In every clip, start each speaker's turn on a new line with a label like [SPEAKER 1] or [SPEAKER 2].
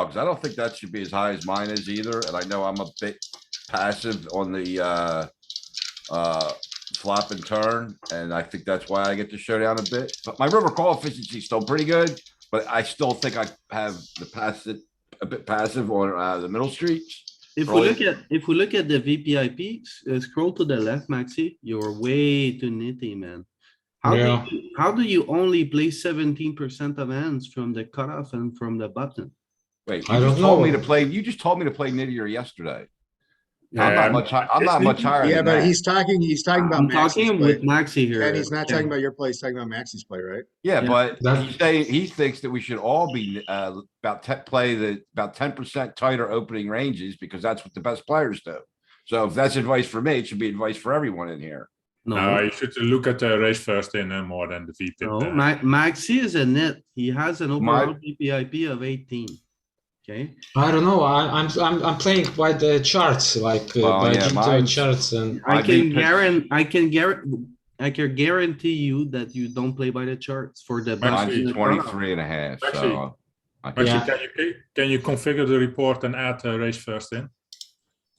[SPEAKER 1] dogs. I don't think that should be as high as mine is either, and I know I'm a bit passive on the, uh, uh, flop and turn, and I think that's why I get to showdown a bit, but my river call efficiency is still pretty good, but I still think I have the passive, a bit passive on, uh, the middle streets.
[SPEAKER 2] If we
[SPEAKER 1] Probably-
[SPEAKER 2] look at, if we look at the VPIP, s- uh, scroll to the left, Maxi, you're way too nitty, man. How
[SPEAKER 3] Yeah.
[SPEAKER 2] do, you- how do you only play seventeen percent of hands from the cutoff and from the button?
[SPEAKER 1] Wait,
[SPEAKER 3] I
[SPEAKER 1] you just
[SPEAKER 3] don't
[SPEAKER 1] told me to
[SPEAKER 3] know.
[SPEAKER 1] play, you just told me to play nittier yesterday. I'm
[SPEAKER 4] Yeah.
[SPEAKER 1] not much, hi- I'm not much higher
[SPEAKER 5] Yeah,
[SPEAKER 1] than
[SPEAKER 5] but
[SPEAKER 1] that.
[SPEAKER 5] he's talking, he's talking about
[SPEAKER 2] I'm
[SPEAKER 5] Maxi's
[SPEAKER 2] talking with
[SPEAKER 5] play.
[SPEAKER 2] Maxi here.
[SPEAKER 5] And he's not
[SPEAKER 2] Ken.
[SPEAKER 5] talking about your play, he's talking about Maxi's play, right?
[SPEAKER 1] Yeah,
[SPEAKER 2] yeah.
[SPEAKER 1] but
[SPEAKER 3] That's-
[SPEAKER 1] he's saying, he thinks that we should all be, uh, about te- play the, about ten percent tighter opening ranges because that's what the best players do. So if that's advice for me, it should be advice for everyone in here.
[SPEAKER 4] No,
[SPEAKER 2] No,
[SPEAKER 4] you should look at the race first in uh, more than the VTIP.
[SPEAKER 2] no,
[SPEAKER 4] uh,
[SPEAKER 2] Ma- Maxi is a net. He has an
[SPEAKER 1] My-
[SPEAKER 2] overall VPIP of eighteen. Okay,
[SPEAKER 3] I don't know. I, I'm I'm I'm playing by the charts, like uh,
[SPEAKER 1] Well,
[SPEAKER 3] by
[SPEAKER 1] yeah,
[SPEAKER 3] Jinto
[SPEAKER 1] mine's-
[SPEAKER 3] charts, and
[SPEAKER 2] I
[SPEAKER 1] I'd be
[SPEAKER 2] can
[SPEAKER 1] pissed.
[SPEAKER 2] guarantee, I can guarantee, I can guarantee you that you don't play by the charts for the. button
[SPEAKER 1] Mine's
[SPEAKER 2] and the cutoff.
[SPEAKER 1] 23 and a half,
[SPEAKER 4] Actually-
[SPEAKER 1] so. I think-
[SPEAKER 4] But you-
[SPEAKER 3] Yeah.
[SPEAKER 4] can you can you configure the report and add uh, race first in?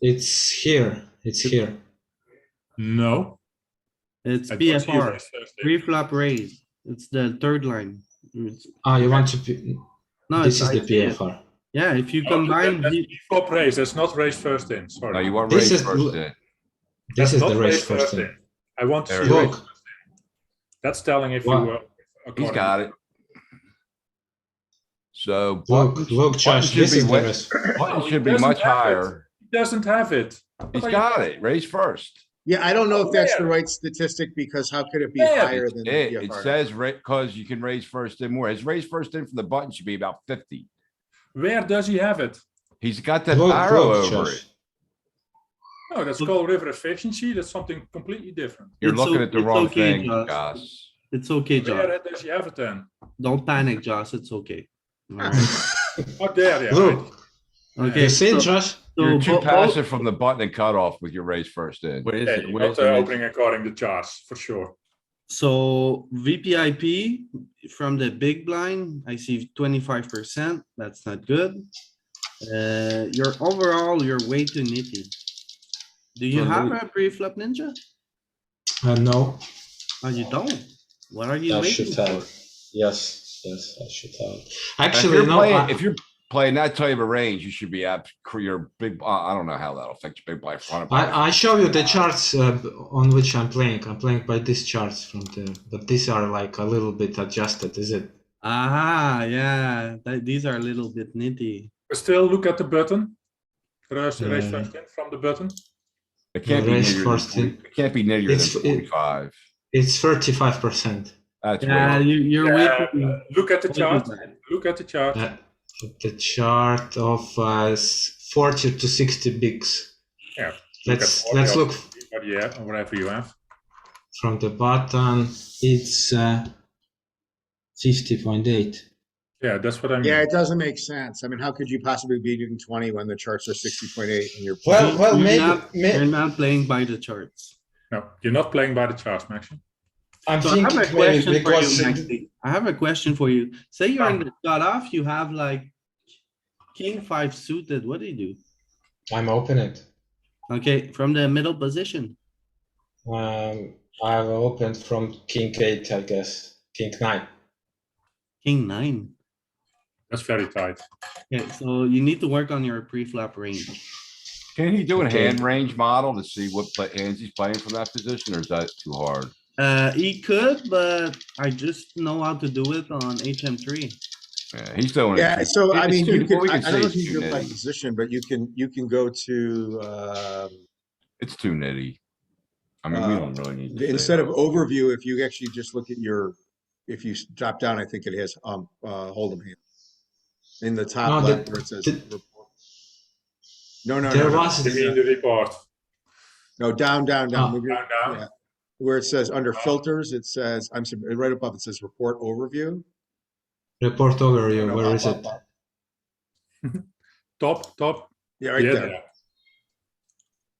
[SPEAKER 3] it's here. It's here.
[SPEAKER 4] No.
[SPEAKER 2] It's
[SPEAKER 4] I don't see
[SPEAKER 2] PFR,
[SPEAKER 4] race first in.
[SPEAKER 2] pre-flop raise. It's the third line. It's-
[SPEAKER 3] Ah, you want to? P-
[SPEAKER 2] No, it's
[SPEAKER 3] this is the
[SPEAKER 2] ICM.
[SPEAKER 3] PFR.
[SPEAKER 2] Yeah, if you
[SPEAKER 4] No,
[SPEAKER 2] combine,
[SPEAKER 4] that- that's
[SPEAKER 2] the-
[SPEAKER 4] before race, that's not race first in. Sorry.
[SPEAKER 1] No, you want
[SPEAKER 3] This
[SPEAKER 1] raised
[SPEAKER 3] is-
[SPEAKER 1] first in.
[SPEAKER 3] This
[SPEAKER 4] That's
[SPEAKER 3] is the
[SPEAKER 4] not
[SPEAKER 3] race first. thing.
[SPEAKER 4] I want to
[SPEAKER 1] There
[SPEAKER 4] see
[SPEAKER 1] it
[SPEAKER 4] race
[SPEAKER 3] is.
[SPEAKER 4] first in. That's telling if you
[SPEAKER 3] Wow.
[SPEAKER 4] were.
[SPEAKER 1] He's
[SPEAKER 4] according-
[SPEAKER 1] got it. So
[SPEAKER 3] Look,
[SPEAKER 1] button
[SPEAKER 3] look, Josh.
[SPEAKER 1] should
[SPEAKER 3] This
[SPEAKER 1] be
[SPEAKER 3] is the
[SPEAKER 1] wet.
[SPEAKER 3] race.
[SPEAKER 1] button
[SPEAKER 4] he
[SPEAKER 1] should be
[SPEAKER 4] doesn't
[SPEAKER 1] much
[SPEAKER 4] have it.
[SPEAKER 1] higher.
[SPEAKER 4] He doesn't have it.
[SPEAKER 1] He's
[SPEAKER 4] What are you-
[SPEAKER 1] got it, raise first.
[SPEAKER 5] Yeah, I don't know if that's the
[SPEAKER 4] Where?
[SPEAKER 5] right statistic because how could it be
[SPEAKER 4] Where?
[SPEAKER 5] higher than the
[SPEAKER 1] It, it
[SPEAKER 5] PFR?
[SPEAKER 1] says, ra- cause you can raise first in more. His raise first in from the button should be about fifty.
[SPEAKER 4] Where does he have it?
[SPEAKER 1] He's got that
[SPEAKER 3] Look,
[SPEAKER 1] arrow
[SPEAKER 3] look,
[SPEAKER 1] over it.
[SPEAKER 3] Josh.
[SPEAKER 4] No, that's called river efficiency. That's something completely different.
[SPEAKER 1] You're
[SPEAKER 2] It's
[SPEAKER 1] looking
[SPEAKER 2] o-
[SPEAKER 1] at the
[SPEAKER 2] it's
[SPEAKER 1] wrong
[SPEAKER 2] okay,
[SPEAKER 1] thing,
[SPEAKER 2] Josh.
[SPEAKER 1] Gus.
[SPEAKER 2] it's okay, Josh.
[SPEAKER 4] Where does he have it then?
[SPEAKER 2] Don't panic, Josh. It's okay. Alright.
[SPEAKER 4] Oh, there, yeah. right.
[SPEAKER 3] Look,
[SPEAKER 2] Okay,
[SPEAKER 3] you see,
[SPEAKER 2] so,
[SPEAKER 3] it, Josh?
[SPEAKER 1] You're
[SPEAKER 2] so
[SPEAKER 1] too
[SPEAKER 2] bo- bo-
[SPEAKER 1] passive from the button and cutoff with your raise first in.
[SPEAKER 6] What is
[SPEAKER 4] Yeah,
[SPEAKER 6] it?
[SPEAKER 4] you're
[SPEAKER 6] What
[SPEAKER 4] not
[SPEAKER 6] is
[SPEAKER 4] uh,
[SPEAKER 6] it?
[SPEAKER 4] opening according to charts, for sure.
[SPEAKER 2] so VPIP from the big blind, I see twenty-five percent. That's not good. Uh, your overall, you're way too nitty. Do you
[SPEAKER 6] So
[SPEAKER 2] have
[SPEAKER 6] Louis-
[SPEAKER 2] a pre-flop ninja?
[SPEAKER 3] Uh, no,
[SPEAKER 2] Oh, you don't? What are you
[SPEAKER 3] I should
[SPEAKER 2] waiting
[SPEAKER 3] have.
[SPEAKER 2] for?
[SPEAKER 3] it. Yes, yes, I should have. it.
[SPEAKER 1] If
[SPEAKER 3] Actually,
[SPEAKER 1] you're
[SPEAKER 3] no.
[SPEAKER 1] playing,
[SPEAKER 3] I-
[SPEAKER 1] if you're playing that type of range, you should be apt, your big, uh, I I don't know how that'll affect your big blind front. of us.
[SPEAKER 3] I, I show you the charts uh, b- on which I'm playing. I'm playing by these charts from the, but these are like a little bit adjusted, is it?
[SPEAKER 2] Ah, yeah, that, these are a little bit nitty.
[SPEAKER 4] But still look at the button. Raise, raise
[SPEAKER 3] Yeah.
[SPEAKER 4] first in from the button.
[SPEAKER 1] It can't be
[SPEAKER 3] raise
[SPEAKER 1] near,
[SPEAKER 3] first in.
[SPEAKER 1] it can't be near than
[SPEAKER 3] It's- it-
[SPEAKER 1] forty-five.
[SPEAKER 3] It's thirty-five percent.
[SPEAKER 1] That's
[SPEAKER 2] Yeah,
[SPEAKER 1] weird.
[SPEAKER 2] you, you're
[SPEAKER 4] Yeah,
[SPEAKER 2] waiting.
[SPEAKER 4] uh, look at the chart. Look at the chart.
[SPEAKER 3] Uh, the chart of uh, s- forty to sixty bigs.
[SPEAKER 4] Yeah, look
[SPEAKER 3] Let's
[SPEAKER 4] at
[SPEAKER 3] let's
[SPEAKER 4] audio.
[SPEAKER 3] look
[SPEAKER 4] What you have, Oh, whatever you have.
[SPEAKER 3] from the bottom. It's uh, fifty point eight.
[SPEAKER 4] Yeah, that's what I mean.
[SPEAKER 5] Yeah, it doesn't make sense. I mean, how could you possibly be doing twenty when the charts are sixty point eight and you're.
[SPEAKER 3] Well, well,
[SPEAKER 2] You're
[SPEAKER 3] maybe.
[SPEAKER 2] not- You're
[SPEAKER 3] may-
[SPEAKER 2] not playing by the charts.
[SPEAKER 4] No, you're not playing by the charts, Maxi.
[SPEAKER 3] I'm
[SPEAKER 2] So I have
[SPEAKER 3] thinking
[SPEAKER 2] a
[SPEAKER 3] maybe
[SPEAKER 2] question for
[SPEAKER 3] because
[SPEAKER 2] you, Maxi. I have a question for you. Say you're
[SPEAKER 4] Ah.
[SPEAKER 2] in the cutoff, you have like king five suited, what do you do?
[SPEAKER 3] I'm open it.
[SPEAKER 2] Okay, from the middle position,
[SPEAKER 3] Um, I've opened from king eight, I guess. King nine.
[SPEAKER 2] king nine.
[SPEAKER 4] That's very tight.
[SPEAKER 2] Okay, so you need to work on your pre-flop range.
[SPEAKER 1] Can he do a
[SPEAKER 3] Okay.
[SPEAKER 1] hand range model to see what play- hands he's playing from that position, or is that too hard?
[SPEAKER 2] Uh, he could, but I just know how to do it on HM three.
[SPEAKER 1] Yeah, he's doing it.
[SPEAKER 5] Yeah,
[SPEAKER 1] too-
[SPEAKER 5] so I
[SPEAKER 1] it's
[SPEAKER 5] mean,
[SPEAKER 1] too-
[SPEAKER 5] you
[SPEAKER 1] what
[SPEAKER 5] could,
[SPEAKER 1] we
[SPEAKER 5] I I
[SPEAKER 1] say
[SPEAKER 5] don't know
[SPEAKER 1] is
[SPEAKER 5] if you
[SPEAKER 1] too
[SPEAKER 5] do it by
[SPEAKER 1] nitty.
[SPEAKER 5] position, but you can, you can go to, um,
[SPEAKER 1] It's too nitty. I mean, we
[SPEAKER 5] Uh,
[SPEAKER 1] don't really need.
[SPEAKER 5] The-
[SPEAKER 1] to say
[SPEAKER 5] Instead
[SPEAKER 1] that.
[SPEAKER 5] of overview, if you actually just look at your, if you s- drop down, I think it has, um, uh, hold'em hand. In the top
[SPEAKER 3] No, the-
[SPEAKER 5] left where it says.
[SPEAKER 3] the-
[SPEAKER 5] report. No, no,
[SPEAKER 3] There
[SPEAKER 5] no, no,
[SPEAKER 3] was
[SPEAKER 4] You mean the report.
[SPEAKER 5] no, down, down, down,
[SPEAKER 3] Ah.
[SPEAKER 5] Move your-
[SPEAKER 4] Down, down.
[SPEAKER 5] Yeah. where it says under filters, it says, I'm sorry, right above, it says report overview.
[SPEAKER 3] report over
[SPEAKER 5] No,
[SPEAKER 3] you.
[SPEAKER 5] no,
[SPEAKER 3] Where
[SPEAKER 5] up,
[SPEAKER 3] is
[SPEAKER 5] up,
[SPEAKER 3] it?
[SPEAKER 5] up.
[SPEAKER 4] Top, top.
[SPEAKER 5] Yeah, right
[SPEAKER 4] yeah,
[SPEAKER 5] there,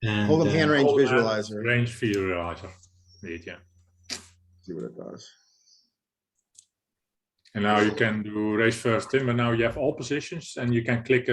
[SPEAKER 3] And,
[SPEAKER 5] hold'em hand
[SPEAKER 3] uh,
[SPEAKER 5] range
[SPEAKER 4] Hold hand,
[SPEAKER 5] visualizer,
[SPEAKER 4] Range visualizer. Indeed, yeah.
[SPEAKER 5] see what it does.
[SPEAKER 4] And now you can do raise first in, but now you have all positions and you can click